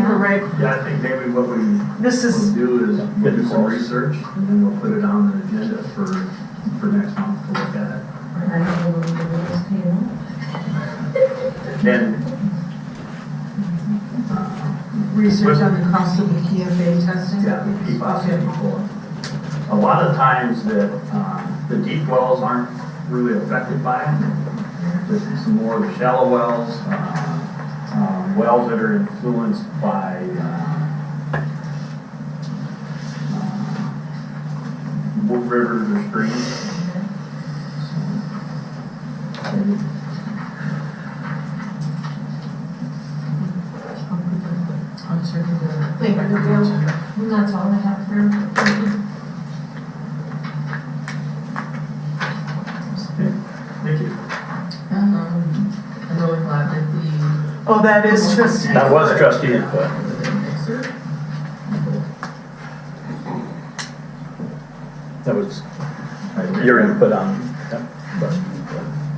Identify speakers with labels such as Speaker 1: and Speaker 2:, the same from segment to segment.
Speaker 1: Right,
Speaker 2: Yeah, I think maybe what we will
Speaker 1: this is,
Speaker 2: do is we'll do some research and then we'll put it on the agenda for, for next month to look at it. And, uh,
Speaker 3: Research on the cost of the PFA testing?
Speaker 2: yeah, the PFAS control. A lot of times that, uh, the deep wells aren't really affected by it. This is more the shallow wells, uh, um, wells that are influenced by, uh, uh, rivers or streams.
Speaker 3: Wait, are there, that's all I have for.
Speaker 2: Thank you.
Speaker 4: Um, I'm really glad that the.
Speaker 1: oh, that is just,
Speaker 5: That was trustee input. That was your input on.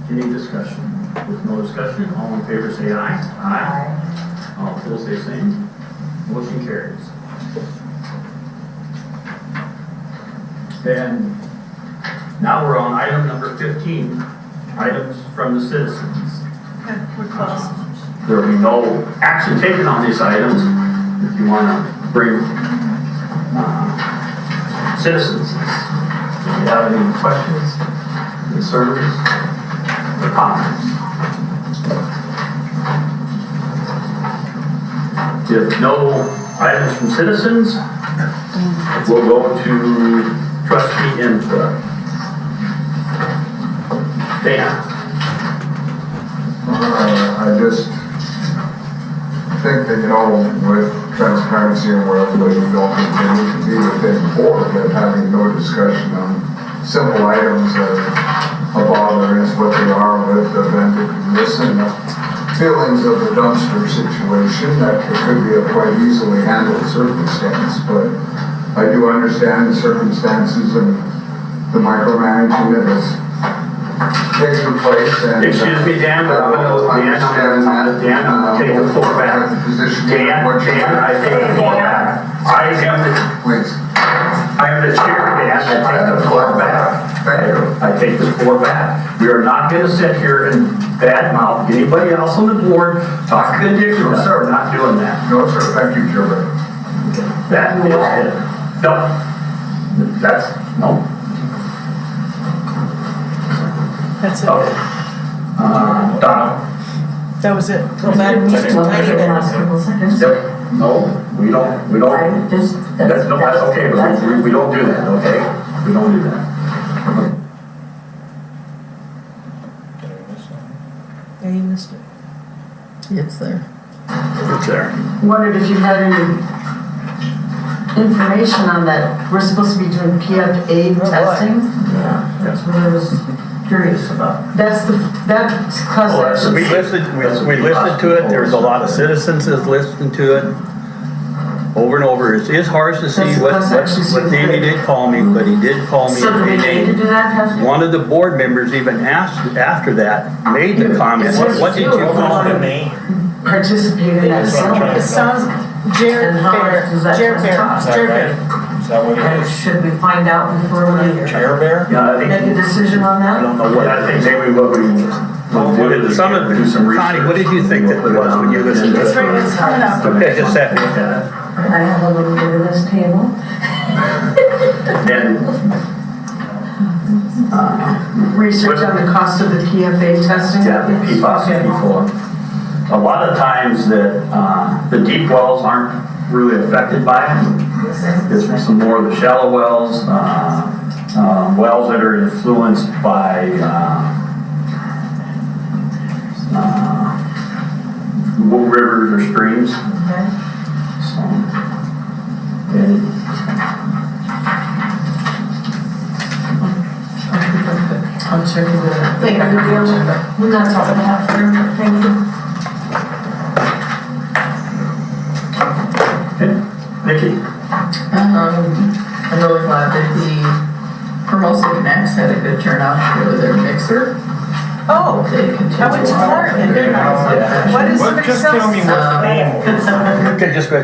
Speaker 2: Any discussion? With no discussion, all in favor say aye. Aye. All opposed say same. Motion carries. And now we're on item number fifteen, items from the citizens.
Speaker 1: we're close.
Speaker 2: There will be no action taken on these items if you want to bring uh, citizens. Do you have any questions, concerns, or comments? If no items from citizens, we'll go to trustee input. Dan?
Speaker 6: Uh, I just think that, you know, with transparency and wherever we don't continue to be within board, that having no discussion on simple items that are bothering us, what they are with, the vendor, this and the feelings of the dumpster situation, that could be a quite easily handled circumstance, but I do understand the circumstances and the micromanaging that is taking place and.
Speaker 2: Excuse me, Dan, but I'm gonna, Dan, I'm gonna, Dan, I'm gonna take the floor back. Dan, Dan, I take the floor back. I am the,
Speaker 6: Please.
Speaker 2: I am the chair, Dan, I take the floor back.
Speaker 6: Thank you.
Speaker 2: I take the floor back. We are not gonna sit here and badmouth anybody else on the board, talk ridiculous, sir, we're not doing that.
Speaker 6: No, sir, thank you, Gilbert.
Speaker 2: That is it. No, that's, no.
Speaker 1: That's it,
Speaker 2: Okay. Uh, Donna?
Speaker 1: that was it.
Speaker 2: Yep. No, we don't, we don't.
Speaker 4: just.
Speaker 2: That's, no, that's okay, but we, we don't do that, okay? We don't do that.
Speaker 1: Yeah, you missed it.
Speaker 4: It's there.
Speaker 5: It's there.
Speaker 7: wondered if you had any information on that. We're supposed to be doing PFA testing.
Speaker 2: Yeah.
Speaker 7: That's what I was curious about. That's the, that class
Speaker 2: Well, that's-
Speaker 7: action.
Speaker 5: Oh, We listened, we we listened to it, there was a lot of citizens that listened to it over and over. It is harsh to see what, what what Danny did call me, but he did call me.
Speaker 7: So do we
Speaker 5: and
Speaker 7: need to
Speaker 5: Danny-
Speaker 7: do that testing?
Speaker 5: One of the board members even asked after that, made the comment, what what did you call it?
Speaker 7: Participate in that.
Speaker 1: It sounds- it sounds, Jared
Speaker 7: And how
Speaker 1: Bear,
Speaker 7: much does that
Speaker 1: Jared Bear,
Speaker 7: cost?
Speaker 1: Jared Bear.
Speaker 8: Is that what
Speaker 7: And should we find out before we
Speaker 8: Chair bear?
Speaker 2: Yeah, I
Speaker 7: make a
Speaker 2: think,
Speaker 7: decision on
Speaker 5: I
Speaker 7: that?
Speaker 5: don't know what.
Speaker 2: I think maybe what we.
Speaker 5: Well, what did- some of- Connie, what did you think that it was when you listened to it?
Speaker 1: It's right, it's coming up.
Speaker 5: Okay, just that.
Speaker 7: I have a little bit of this table.
Speaker 2: And,
Speaker 7: Research on the cost of the PFA testing?
Speaker 2: yeah, the PFAS before. A lot of times that, uh, the deep wells aren't really affected by it. It's some more of the shallow wells, uh, uh, wells that are influenced by, uh, uh, rivers or streams.
Speaker 7: Okay.
Speaker 2: So, okay.
Speaker 4: I'm checking the.
Speaker 3: Wait, are there, we that's all I have for, thank you.
Speaker 2: Nikki?
Speaker 4: Um, I'm really glad that the Hermosa Connects had a good turnout for their mixer.
Speaker 1: Oh,
Speaker 4: They continue.
Speaker 1: I went to Florida, didn't I?
Speaker 4: on.
Speaker 1: What is the
Speaker 8: What,
Speaker 1: mix
Speaker 8: just tell me what the name was.
Speaker 5: Okay, just.